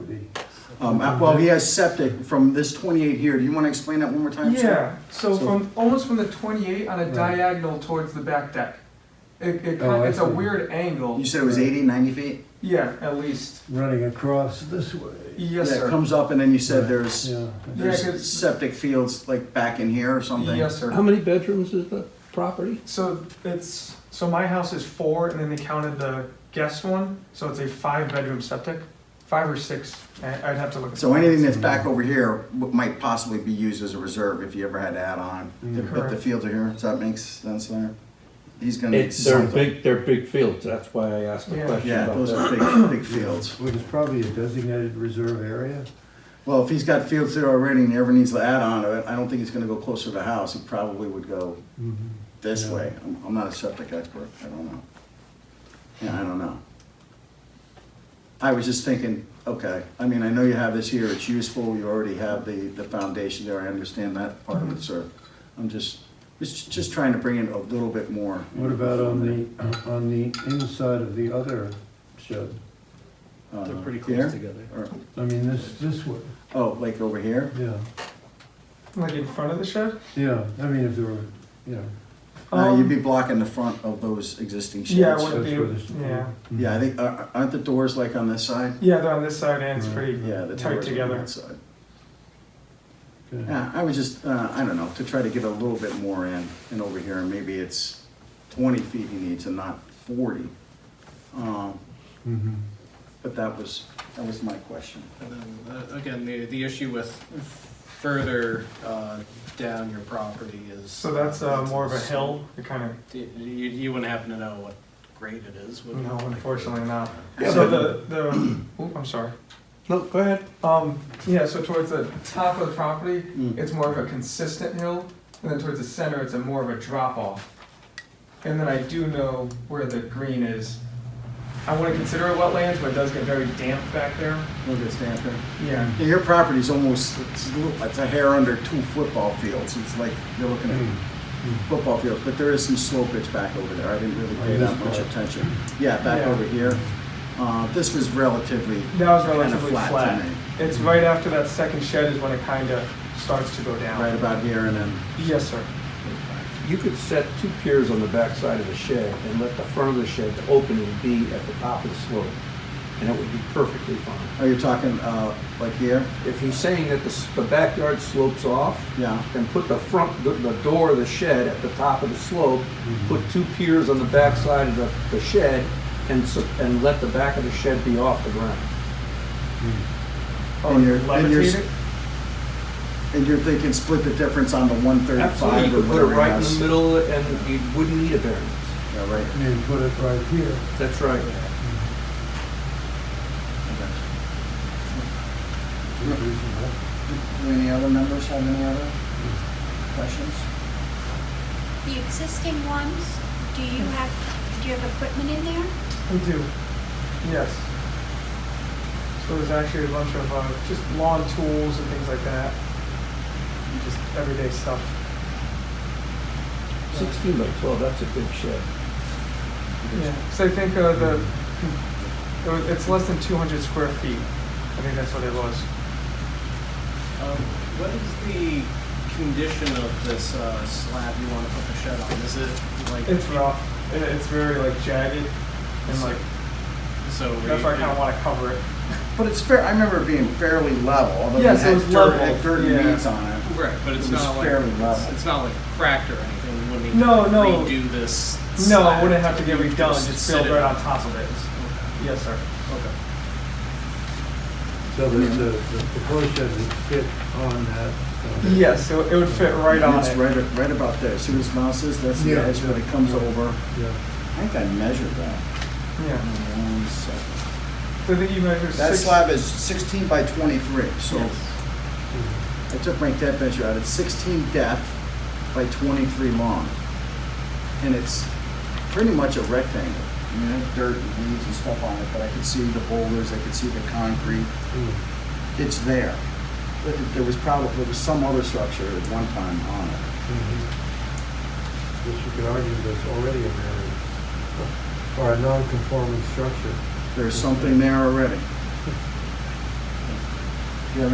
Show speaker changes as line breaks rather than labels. Um, well, he has septic from this twenty-eight here. Do you wanna explain that one more time, sir?
Yeah, so
So-
from, almost from the twenty-eight on a
Right.
diagonal towards the back deck. It, it,
Oh,
kind-
I
it's a
see.
weird angle,
You said it was 80, 90 feet?
yeah, at least,
running across this way.
yes,
That
sir,
comes up and then you said
Right.
there's,
Yeah.
Yeah, 'cause-
there's septic fields like back in here or something?
yes, sir.
How many bedrooms is the property?
So it's, so my house is four, and then they counted the guest one, so it's a five-bedroom septic, five or six, I- I'd have to look. at
So
the-
anything that's back over here w- might possibly be used as a reserve if you ever had to add on.
Mm-hmm.
Mm.
But the fields are here, does that make sense there? He's gonna need
It's, they're
something.
big, they're big fields, that's why I asked the
Yeah.
question
Yeah,
about
those
that.
are big, big fields.
Which is probably a designated reserve area.
Well, if he's got fields there already and he ever needs to add on to it, I don't think he's gonna go closer to the house. He probably would go this
Yeah.
way. I'm, I'm not a septic expert, I don't know. Yeah, I don't know. I was just thinking, okay, I mean, I know you have this here, it's useful, you already have the, the foundation there, I understand that part of it, sir. I'm just, just, just trying to bring in a little bit more.
What about on the, on the inside of the other shed?
Uh,
They're pretty
here?
close together.
Or-
I mean, this, this way,
Oh, like over here?
yeah,
Like in front of the shed?
yeah, I mean, if there were, you know.
No, Uh, you'd
Um,
be blocking the front of those existing sheds.
Yeah, I wouldn't
that's
be-
where this-
yeah.
Yeah, I think, are- aren't the doors like on this side?
Yeah, they're on this side, and it's pretty
Mm-hmm. Yeah, the
tight
doors are on
together.
that side.
Okay.
Yeah, I was just, uh, I don't know, to try to get a little bit more in and over here, maybe it's twenty feet he needs and not forty. Um,
Mhm.
but that was, that was my question.
And then, uh, again, the, the issue with further uh, down your property is.
So that's uh, more of a hill, it kind of,
You, you you wouldn't happen to know what grade it is, would you?
no, unfortunately not.
Yeah,
So the,
but-
the, oop, I'm sorry.
No, go ahead.
Um, yeah, so towards the top of the property,
Mm.
it's more of a consistent hill, and then towards the center, it's a more of a drop off. And then I do know where the green is. I wouldn't consider it wetlands, but it does get very damp back there.
Look at Stanford.
Yeah.
Yeah, your property's almost, it's a little, it's a hair under two football fields, it's like, you're looking at
Hmm. Mm-hmm.
football fields, but there is some slopage back over there, I didn't really
Oh,
pay that
this
much
part.
attention. Yeah, back
Yeah.
over here, uh, this was relatively
That was
kind of
relatively
flat
flat.
to me. Hmm.
It's right after that second shed is when it kind of starts to go down.
Right about here and then
Yes, sir.
You could set two piers on the backside of the shed and let the front of the shed, the opening be at the top of the slope, and it would be perfectly fine.
Are you talking uh, like here?
If he's saying that the, s- the backyard slopes off,
Yeah.
then put the front, the, the door of the shed at the top of the slope,
Mm-hmm.
put two piers on the backside of the, the shed, and, s- and let the back of the shed be off the ground.
Mm-hmm.
Oh,
And you're- and you're s-
levitated?
And you're thinking split the difference on the
Absolutely,
135
you
or
could put it
whatever
right in
else?
the middle, and you wouldn't need a variance.
Yeah, right.
And then put it right here.
That's right.
which is, uh,
Do any other members have any other questions?
The existing ones, do you have, do you have equipment in there?
We do, yes. So there's actually a bunch of uh, just lawn tools and things like that, and just everyday stuff.
Sixteen by twelve, that's a big shed.
Yeah. So I think uh, the it was- it's less than 200 square feet. I think that's what it was.
Um, What is the condition of this uh, slab you want to put the shed on? Is it like?
It's rough. It, it's very like jagged, and like
So. were
that's
you-
why I kind of want to cover it.
But it's fair, I remember it being fairly level, although it
Yes, it
had
was
dirt,
level,
had dirt and
yeah.
weeds on it.
Right, but it's
It was
not like,
fairly
it's
level.
it's not like cracked or anything, you wouldn't need
No,
to
no.
redo this.
No,
slab
it wouldn't have to get
You would
redone. Just build
sit
right
it-
on top of it. Yes, sir.
Okay.
So that the, the proposed shed would fit on that. uh,
Yes, it, would- it would fit right
And
on
It's
it.
right, right about there, see where his mouse is, that's the
Yeah.
edge when it comes over.
Yeah.
I think I measured that.
Yeah.
One second.
So I think you measure
That
six.
slab is 16 by 23, so
Yes.
Mm-hmm.
I took my depth measure out. It's 16 depth by 23 long. And it's pretty much a rectangle. I mean, it had dirt and weeds and stuff on it, but I could see the boulders, I could see the concrete.
Mm.
It's there. But it- There was probably, there was some other structure at one time on it.
Yes, Mm-hmm. you could argue that's already a variance, or a non-conforming structure.
There's something there already.